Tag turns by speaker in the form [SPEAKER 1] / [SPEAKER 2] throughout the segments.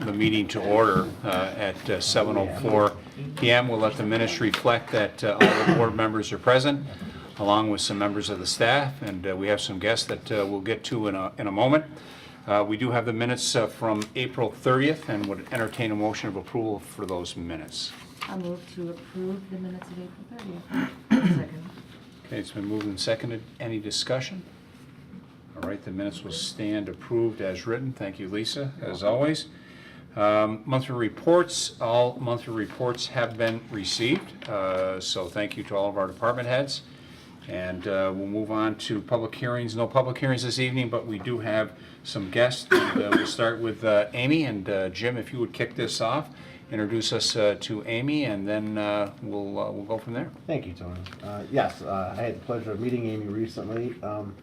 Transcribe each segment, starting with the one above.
[SPEAKER 1] the meeting to order uh, at uh, 7:04 PM. We'll let the minutes reflect that uh, all the board members are present, along with some members of the staff, and uh, we have some guests that uh, we'll get to in a, in a moment. Uh, We do have the minutes uh, from April 30th, and would entertain a motion of approval for those minutes.
[SPEAKER 2] I'll move to approve the minutes of April 30th. Second.
[SPEAKER 1] Okay, it's been moved and seconded. Any discussion? All right, the minutes will stand approved as written. Thank you, Lisa, as always. Um, Monthly reports, all monthly reports have been received, uh, so thank you to all of our department heads. And uh, we'll move on to public hearings. No public hearings this evening, but we do have some guests. And, uh, We'll start with uh, Amy, and uh, Jim, if you would kick this off, introduce us uh, to Amy, and then uh, we'll, uh, we'll go from there.
[SPEAKER 3] Thank you, Tony. Uh, Yes, uh, I had the pleasure of meeting Amy recently. Um,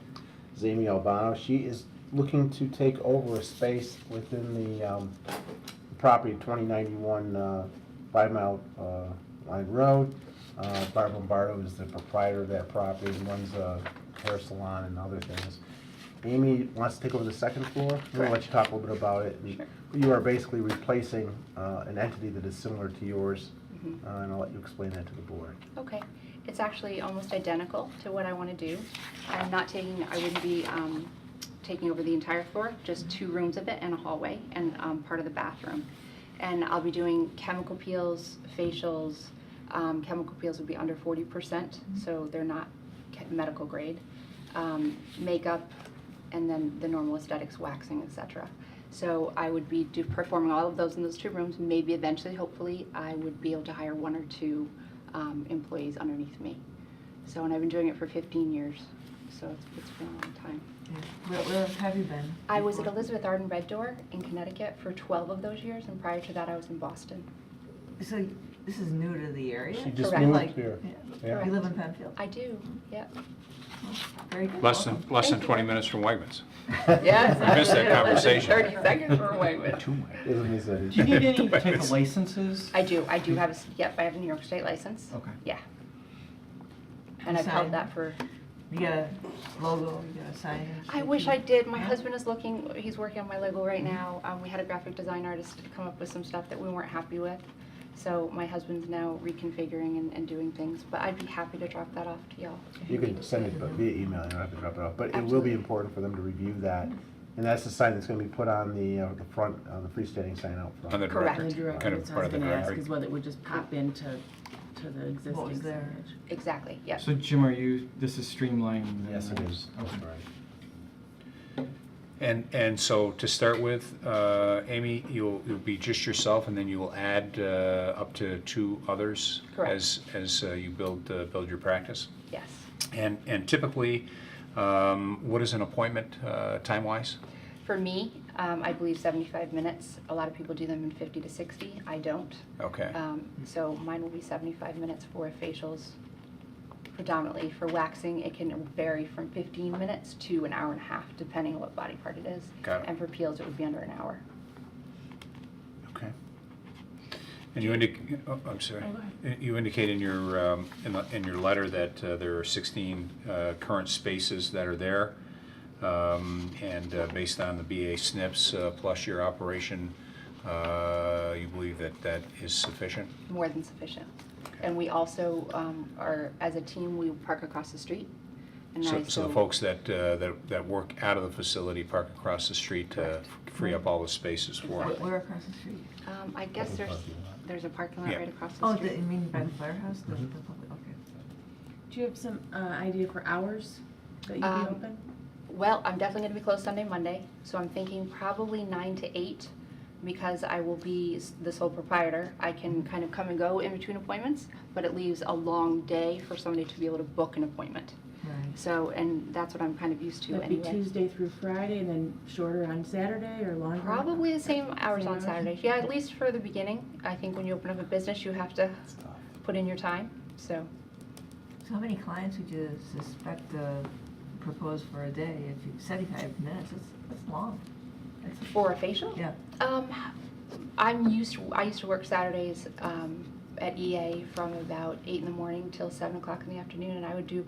[SPEAKER 3] It's Amy Albano. She is looking to take over a space within the um, property 2091 uh, Five Mile uh, Line Road. Uh, Barb Lombardo is the proprietor of that property and runs a hair salon and other things. Amy wants to take over the second floor. I'm gonna let you talk a little bit about it. And You are basically replacing uh, an entity that is similar to yours, uh, and I'll let you explain that to the board.
[SPEAKER 4] Okay, it's actually almost identical to what I want to do. I'm not taking, I wouldn't be um, taking over the entire floor, just two rooms of it and a hallway and um, part of the bathroom. And I'll be doing chemical peels, facials. Um, Chemical peels would be under 40%, so they're not ca- medical grade. Um, Makeup, and then the normal aesthetics, waxing, etc. So I would be do- performing all of those in those two rooms. Maybe eventually, hopefully, I would be able to hire one or two um, employees underneath me. So, and I've been doing it for 15 years, so it's, it's been a long time.
[SPEAKER 2] Where, where have you been?
[SPEAKER 4] I was at
[SPEAKER 2] before?
[SPEAKER 4] Elizabeth Arden Red Door in Connecticut for 12 of those years, and prior to that, I was in Boston.
[SPEAKER 2] So this is new to the area?
[SPEAKER 3] She just
[SPEAKER 4] Correct.
[SPEAKER 3] moved
[SPEAKER 2] Like,
[SPEAKER 3] here.
[SPEAKER 2] yeah.
[SPEAKER 3] Yeah.
[SPEAKER 2] You live in Penfield?
[SPEAKER 4] I do, yeah.
[SPEAKER 2] Very good.
[SPEAKER 1] Less than,
[SPEAKER 2] Welcome.
[SPEAKER 1] less than
[SPEAKER 4] Thank you.
[SPEAKER 1] 20 minutes from Wegmans.
[SPEAKER 4] Yes.
[SPEAKER 1] We missed that conversation.
[SPEAKER 4] 30 seconds or away with.
[SPEAKER 3] Isn't this a-
[SPEAKER 5] Do you need any type
[SPEAKER 1] It's-
[SPEAKER 5] of licenses?
[SPEAKER 4] I do, I do have, a s- yep, I have a New York State license.
[SPEAKER 5] Okay.
[SPEAKER 4] Yeah. And I've held
[SPEAKER 2] Sign.
[SPEAKER 4] that for
[SPEAKER 2] You got a logo, you got a sign?
[SPEAKER 4] I wish I did. My husband is looking, he's working on my logo right now. Um, we had a graphic design artist come up with some stuff that we weren't happy with. So my husband's now reconfiguring and, and doing things, but I'd be happy to drop that off to y'all. if
[SPEAKER 3] You
[SPEAKER 4] need
[SPEAKER 3] can
[SPEAKER 4] it.
[SPEAKER 3] send it via email, you don't have to drop it off, but it will be
[SPEAKER 4] Absolutely.
[SPEAKER 3] important for them to review that. And that's the sign that's gonna be put on the, uh, the front, on the freestanding sign out
[SPEAKER 1] On the
[SPEAKER 3] front.
[SPEAKER 4] Correct.
[SPEAKER 1] director,
[SPEAKER 6] The director,
[SPEAKER 1] kind of
[SPEAKER 6] that's what I
[SPEAKER 1] part
[SPEAKER 6] was
[SPEAKER 1] of the
[SPEAKER 6] gonna ask,
[SPEAKER 1] director.
[SPEAKER 6] is whether it would just pop into, to the
[SPEAKER 2] What was
[SPEAKER 6] existing
[SPEAKER 2] there?
[SPEAKER 6] signage.
[SPEAKER 4] Exactly, yes.
[SPEAKER 5] So Jim, are you, this is streamlining? then,
[SPEAKER 3] Yes, it
[SPEAKER 5] right?
[SPEAKER 3] is.
[SPEAKER 5] Okay.
[SPEAKER 3] Right.
[SPEAKER 1] And, and so to start with, uh, Amy, you'll, you'll be just yourself, and then you will add uh, up to two others
[SPEAKER 4] Correct.
[SPEAKER 1] as, as uh, you build, uh, build your practice.
[SPEAKER 4] Yes.
[SPEAKER 1] And, and typically, um, what is an appointment uh, time-wise?
[SPEAKER 4] For me, um, I believe seventy-five minutes. A lot of people do them in fifty to sixty. I don't.
[SPEAKER 1] Okay,
[SPEAKER 4] Um, so mine will be seventy-five minutes for facials predominantly. For waxing, it can vary from fifteen minutes to an hour and a half, depending on what body part it is.
[SPEAKER 1] Got it.
[SPEAKER 4] And for peels, it would be under an hour.
[SPEAKER 1] okay. And you indic, oh, I'm sorry. You indicate in your, um, in the- in your letter that uh, there are 16 uh, current spaces that are there. Um, And uh, based on the BA SNPs uh, plus your operation, uh, you believe that that is sufficient?
[SPEAKER 4] more than sufficient. And we also um, are, as a team, we park across the street. and I-
[SPEAKER 1] So so the folks that, uh, that that work out of the facility park across the street to
[SPEAKER 4] Correct.
[SPEAKER 1] free up all the spaces for
[SPEAKER 2] Where
[SPEAKER 1] them.
[SPEAKER 2] where across the street?
[SPEAKER 4] Um, I guess
[SPEAKER 3] Open
[SPEAKER 4] there's,
[SPEAKER 3] parking lot.
[SPEAKER 4] there's a parking lot
[SPEAKER 1] Yeah.
[SPEAKER 4] right across the
[SPEAKER 2] Oh, the,
[SPEAKER 4] street.
[SPEAKER 2] you mean by the firehouse, the, the public, okay.
[SPEAKER 6] Do you have some uh, idea for hours that you'd be
[SPEAKER 4] Um,
[SPEAKER 6] open?
[SPEAKER 4] Well, I'm definitely gonna be closed Sunday, Monday, so I'm thinking probably nine to eight, because I will be s- the sole proprietor. I can kind of come and go in between appointments, but it leaves a long day for somebody to be able to book an appointment.
[SPEAKER 2] Right.
[SPEAKER 4] So, and that's what I'm kind of used to
[SPEAKER 6] That'd be
[SPEAKER 4] anyway.
[SPEAKER 6] Tuesday through Friday and then shorter on Saturday or longer?
[SPEAKER 4] Probably the same hours
[SPEAKER 6] Same
[SPEAKER 4] on
[SPEAKER 6] hours?
[SPEAKER 4] Saturdays. Yeah, at least for the beginning. I think when you open up a business, you have to
[SPEAKER 3] It's tough.
[SPEAKER 4] put in your time, so.
[SPEAKER 2] So how many clients would you suspect uh, propose for a day? If you, 75 minutes, that's, that's long. That's-
[SPEAKER 4] For a facial?
[SPEAKER 2] Yeah.
[SPEAKER 4] Um, I'm used, to- I used to work E Saturdays, um, at EA from about eight in the morning till seven o'clock in the afternoon, and I would do